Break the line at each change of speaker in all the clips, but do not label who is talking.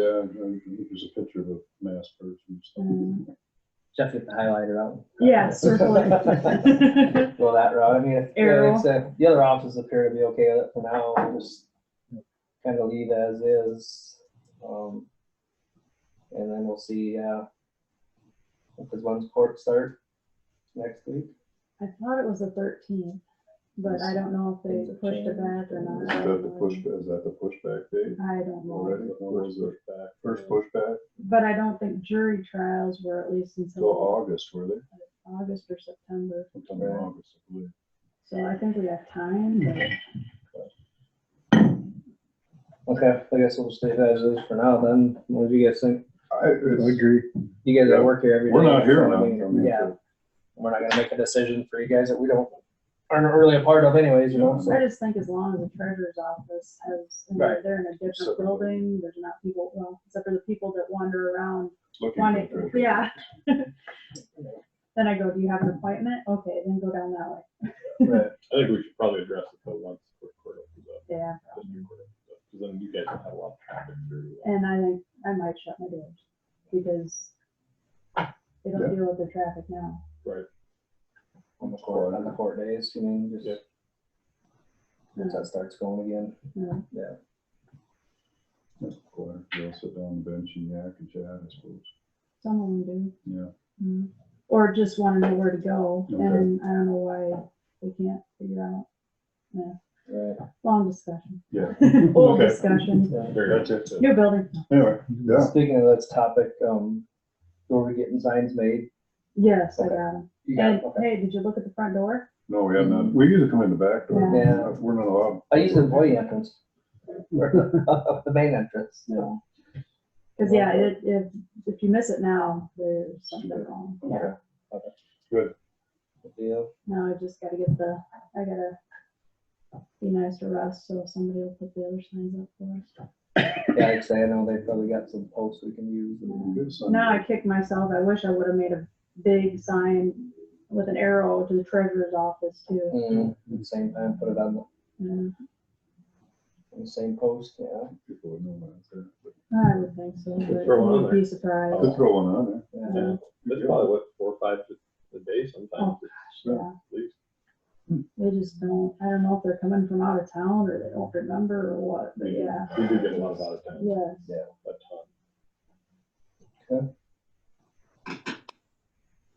Yeah, there's a picture of a masked person.
Um,
Jeff, get the highlighter out.
Uh,
Yeah, circle it.
Go that route. I mean, if, yeah, like
Arrow.
I said, the other options appear to be okay with it for now, We'll just kind of leave as is. Um, and then we'll see, uh, because when's court start next week?
I thought it was the thirteenth, but I don't know if
Things
they
have
pushed it
changed.
back or
Is
not. I
that the
don't
push,
know.
is that the pushback date
I don't
already?
know,
What was the Mm-hmm. first pushback?
but I don't think jury trials were at least
Till
until
August, were they?
August or September,
Sometime in August, I believe.
so I think we have time, but
Okay, I guess we'll just leave as is for now then. What do you guys think?
I, it's-
agree.
You guys
Yeah.
that work here every day.
we're not here
so, I
now.
mean,
I mean,
Yeah, we're not gonna make a decision for you guys that we don't, aren't really a part of anyways, you know?
Mm-hmm.
so.
I just think as long as the treasurer's office has, and they're, they're in a different
Separate.
building, there's not people, well, except for the people that wander around
Looking
wanting,
for the treasure.
yeah. Then I go, do you have an appointment? Okay, then go down that way,
Right.
I think we should probably address it though once we're court opens up,
yeah,
just new court opens up, because then you guys will have a lot of traffic through.
and I think I might shut my doors, because they
Yeah.
don't deal with the traffic now.
On the court, on the court days, you mean,
Yeah.
just. Once that starts going again.
Corner. They'll sit down on the bench and yak and chat, I suppose.
Some of them do.
Yeah.
Mm. Or just want to know where to go,
Okay.
and I don't know why they can't figure out.
Right.
Long discussion.
Yeah.
Old
Okay.
discussion.
Yeah.
Very good.
That's it.
New building.
Anyway, yeah.
Speaking of this topic, um, were we getting signs made?
Yes, I got them.
You got
And
it, okay.
hey, did you look at the front door?
No, we have
Mm.
none. We usually come in the back door.
Yeah.
We're not allowed.
I use the employee entrance. Up the main entrance, you know.
Because yeah, it, if if you miss it now, there's something wrong. Yeah.
Okay.
Good.
Good deal.
Now I just got to get the. I gotta be nice to Russ, so somebody will put the other signs up for us.
Yeah, like I say, I know they probably got some posts we can use. and-
Good son.
Now I kick myself. I wish I would have made a big sign with an arrow to the treasurer's office too.
Mm, at the Same time, put it on the-
Yeah.
on the same post, yeah.
People would know about that, but-
I would think so,
Could
but
throw one on
you'd be surprised. Uh,
Could throw one on eh?
yeah.
That's probably what, four or five a day sometimes.
Yeah,
at least.
they just don't, I don't know if they're coming from out of town or they don't remember or what, but yeah,
We do get a lot of out of town,
yes.
a ton.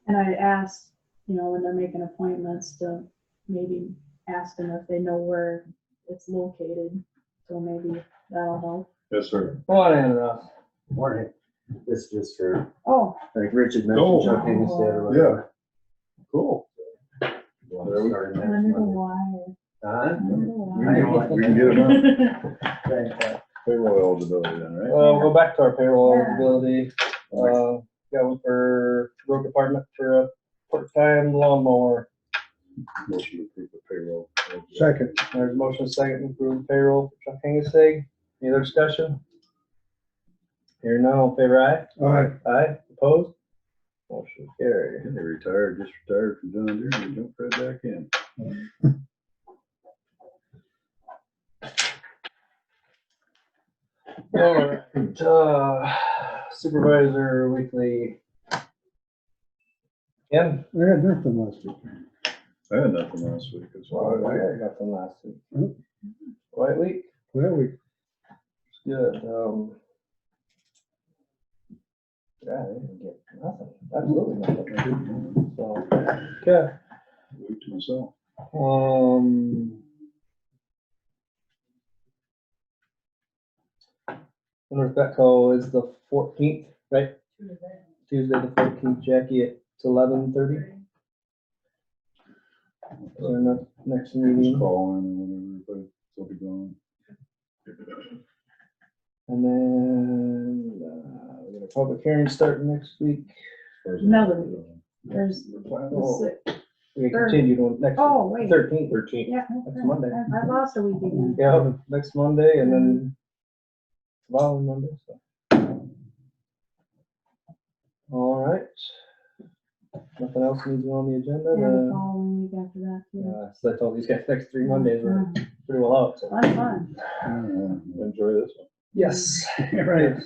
And I asked, you know, when they're making appointments to maybe ask them if they know where it's located, so maybe that'll help.
it. Yes, sir.
Well, I don't know.
Morning. This is just for,
Oh,
like Richard
Oh.
mentioned, Chuck Higgins did or whatever.
Cool.
We'll have to start
I wonder
next Monday.
why,
Huh?
I wonder why.
I know what
We can get it on
you're saying.
payroll eligibility then, right?
Well, go back to our payroll
Yeah.
eligibility. Uh, got one for road department for a part-time lawnmower.
Motion to approve the payroll.
Second.
There's a motion second to approve payroll for Chuck Hengessig. Any other discussion? Here none, all in favor
All right.
aye? Aye, opposed? Motion carried.
And they retired, just retired from John Deere and they jumped right back in.
Alright, uh, supervisor weekly. Ken?
We had nothing last week.
I had nothing last week. It's
Well,
all
Oh, I
right.
got them last week.
Mhm.
Quiet week?
Well, we,
Good, um. Yeah, I didn't get nothing, absolutely nothing. So, okay,
Week to myself.
um. Wonder if Betco is the fourteenth, right? Tuesday the fourteenth, Jackie, at eleven thirty? Or not, next
Just
meeting?
call in and whatever, but I'll be gone.
And then, uh, we got a public hearing starting next week.
Or is it-
Melody. There's,
Oh.
the si-
We
Third.
continued on next.
oh, wait,
Thirteenth.
Thirteen.
yeah,
That's Monday.
I I lost a week again.
Yeah, next Monday and then following Monday, so. All right. Nothing else needs to be on the agenda,
And the
then,
following week after that, too.
uh, so I told these guys next three Mondays were pretty well out, so.
Fun, fun.
Yeah.
Enjoy this one.
Yes.
right.